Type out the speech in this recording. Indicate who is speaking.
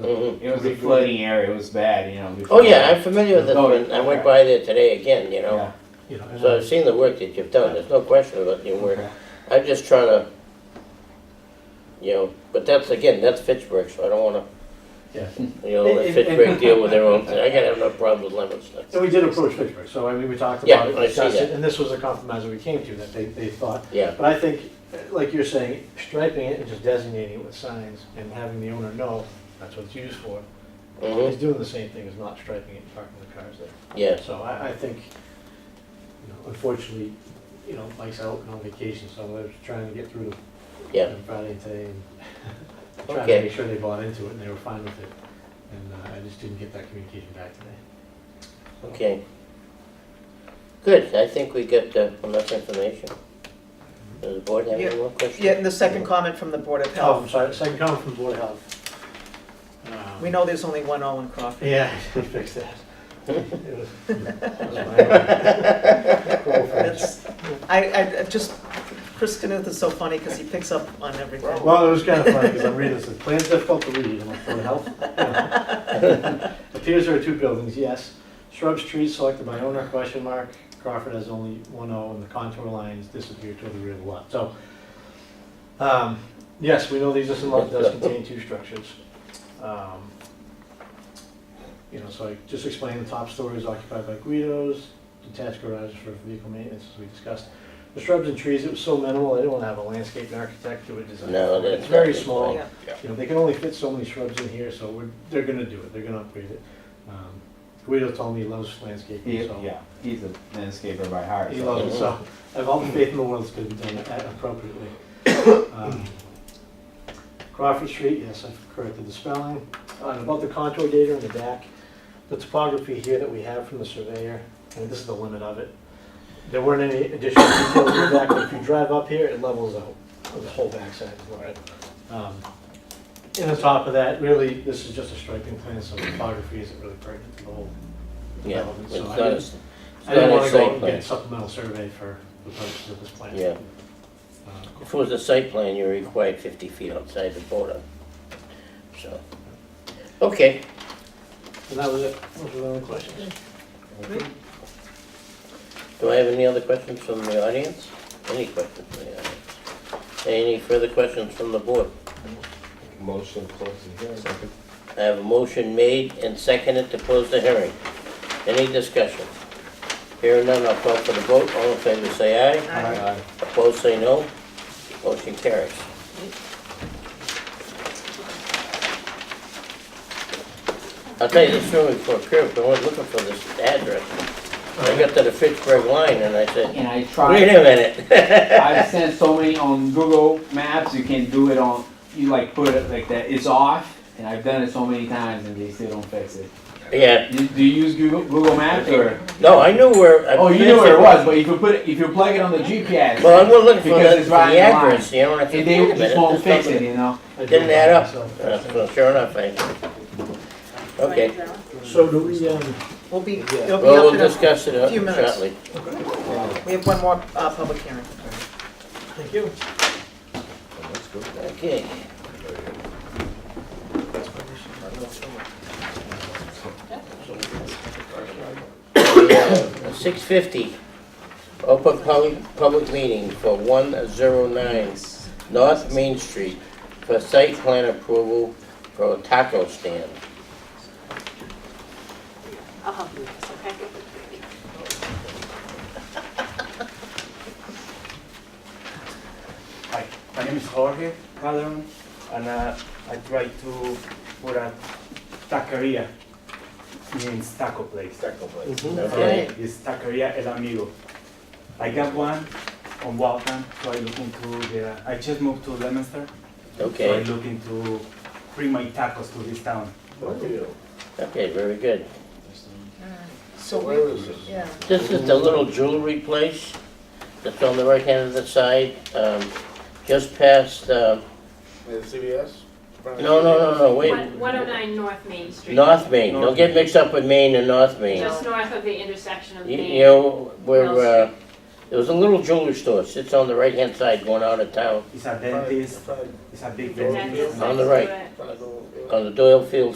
Speaker 1: Mhm.
Speaker 2: It was a flooding area, it was bad, you know. before-
Speaker 1: Oh, yeah, I'm familiar with this
Speaker 2: Oh,
Speaker 1: one. I went
Speaker 2: okay.
Speaker 1: by there today again, you know.
Speaker 2: Yeah,
Speaker 3: you know, and
Speaker 1: So I've seen the work that you've done, there's no question about your work.
Speaker 2: okay.
Speaker 1: I'm just trying to, you know, but that's, again, that's Fitchburg, so I don't wanna,
Speaker 3: Yeah.
Speaker 1: you know, let Fitchburg deal with their own thing. I gotta have no problem with lemon
Speaker 3: And
Speaker 1: stuff.
Speaker 3: we did approach Fitchburg, so I mean, we talked
Speaker 1: Yeah,
Speaker 3: about it,
Speaker 1: I see
Speaker 3: discussed it,
Speaker 1: that.
Speaker 3: and this was a compromise that we came to, that they, they thought.
Speaker 1: Yeah,
Speaker 3: But I think, uh, like you're saying, striping it and just designating it with signs and having the owner know that's what it's used for, is
Speaker 1: mhm,
Speaker 3: doing the same thing as not striping it and parking the cars there.
Speaker 1: yes,
Speaker 3: So I, I think, you know, unfortunately, you know, Mike's out on vacation, so I was trying to get through to
Speaker 1: yeah.
Speaker 3: on Friday and today, and trying
Speaker 1: Okay.
Speaker 3: to make sure they bought into it, and they were fine with it. And uh, I just didn't get that communication back today.
Speaker 1: Okay. Good, I think we got uh, enough information. Does the board have any more questions?
Speaker 4: Yeah, and the second comment from the Board of
Speaker 3: Oh, I'm
Speaker 4: Health,
Speaker 3: sorry, second comment from Board of Health. Um,
Speaker 4: we know there's only one Owen Crawford.
Speaker 3: Yeah, we fixed that. It was- that was my- Cool, thanks.
Speaker 4: That's, I, I I just, Chris Knuth is so funny because he picks up on everything.
Speaker 3: Well, it was kind of funny, because I'm reading this, the plan's difficult to read, I'm like, Board of Health? Appears there are two buildings, yes. Shrubs, trees selected by owner, question mark. Crawford has only one O, and the contour lines disappear toward the rear of the lot, so. um, Yes, we know the existing lot does contain two structures. Um, You know, so I just explained the top story is occupied by Guidos, detached garages for vehicle maintenance, as we discussed. The shrubs and trees, it was so minimal, they don't have a landscape architect do a design.
Speaker 1: No,
Speaker 3: for it.
Speaker 1: that's
Speaker 3: It's very
Speaker 1: not the
Speaker 3: small.
Speaker 4: plan.
Speaker 3: You know, they can only fit so many shrubs in here, so we're, they're gonna do it, they're gonna upgrade it. Um, Guido told me he loves
Speaker 2: He-
Speaker 3: landscaping, so.
Speaker 2: Yeah, he's a landscaper by heart.
Speaker 3: He
Speaker 2: so-
Speaker 3: loves it, so I have all the faith in the world it's gonna be done a- appropriately. Um, Crawford Street, yes, I've corrected the spelling. Uh, And about the contour data in the back, the topography here that we have from the surveyor, and this is the limit of it. There weren't any additional details in the back, but if you drive up here, it levels out, the whole backside is level. Um, And on top of that, really, this is just a striping plan, so topography isn't really pertinent to the whole
Speaker 1: Yeah,
Speaker 3: development.
Speaker 1: it's
Speaker 3: So I
Speaker 1: not,
Speaker 3: didn't-
Speaker 1: it's
Speaker 3: I didn't
Speaker 1: not
Speaker 3: want
Speaker 1: a
Speaker 3: to go out
Speaker 1: site
Speaker 3: and get
Speaker 1: plan.
Speaker 3: a supplemental survey for the purposes of this plan.
Speaker 1: Yeah,
Speaker 3: Uh,
Speaker 1: if it was a site plan, you're required fifty feet outside the border, so. Okay,
Speaker 3: And that was it. Those were the only questions.
Speaker 1: do I have any other questions from the audience? Any questions from the audience? Any further questions from the board?
Speaker 5: Motion to close the hearing.
Speaker 1: I have a motion made and seconded to close the hearing. Any discussion? Hearing none, I'll call for the vote. All in favor, say aye.
Speaker 4: Aye.
Speaker 5: Aye.
Speaker 1: Opposed, say no. Motion carries. I'll tell you this story before Kirk, I was looking for this address. I got to the Fitchburg line and I said,
Speaker 6: And I
Speaker 1: wait
Speaker 6: tried,
Speaker 1: a minute.
Speaker 6: I've sent so many on Google Maps, you can do it on, you like put it like that, it's off, and I've done it so many times and they still don't fix it.
Speaker 1: Yeah,
Speaker 6: You- Do you use Google, Google Maps or?
Speaker 1: no, I knew where. I
Speaker 6: Oh, you knew where it was, but if you put, it- if you plug it on the GPS.
Speaker 1: Well, I was looking for
Speaker 6: Because
Speaker 1: the
Speaker 6: it's
Speaker 1: the
Speaker 6: right in line.
Speaker 1: address, you know, and I said, wait a
Speaker 6: And they
Speaker 1: minute.
Speaker 6: just won't
Speaker 1: this
Speaker 6: fix
Speaker 1: doesn't-
Speaker 6: it, you know?
Speaker 3: I do
Speaker 1: Didn't add up.
Speaker 3: myself.
Speaker 1: Uh, well, Sure enough, I, okay.
Speaker 3: So do we, um,
Speaker 4: We'll be,
Speaker 3: Yeah.
Speaker 4: it'll be
Speaker 1: Well,
Speaker 4: up
Speaker 1: we'll
Speaker 4: in a,
Speaker 1: discuss it uh,
Speaker 4: few minutes.
Speaker 1: shortly.
Speaker 4: we have one more, uh, public hearing.
Speaker 3: thank you.
Speaker 5: That's good.
Speaker 1: Okay. Six fifty, open public, public meeting for one zero nine North Main Street for site plan approval for a taco stand.
Speaker 7: I'll help you with this, okay?
Speaker 8: Hi, my name is Jorge Calderon, and uh, I try to put a taqueria, means taco place. Taco place.
Speaker 1: Okay,
Speaker 8: It's taqueria El Amigo. I got one on Waltham, so I look into the, I just moved to Leominster, so I
Speaker 1: okay,
Speaker 8: look into bring my tacos to this town.
Speaker 1: okay, very good.
Speaker 4: So we, yeah,
Speaker 1: This is the little jewelry place that's on the right hand of the side, um, just past, um, no, no, no, no, wait.
Speaker 7: One- 109 North Main Street.
Speaker 1: North Main, don't get mixed up with Maine and North Main.
Speaker 7: Just north of the intersection of
Speaker 1: You
Speaker 7: Main.
Speaker 1: you know, where, uh, There was a little jewelry store, sits on the right-hand side going out of town,
Speaker 8: It's a dentist, it's a big
Speaker 7: The
Speaker 8: dentist.
Speaker 7: dentist
Speaker 1: On the
Speaker 7: next to
Speaker 1: right.
Speaker 7: it.
Speaker 1: on the Doyle Field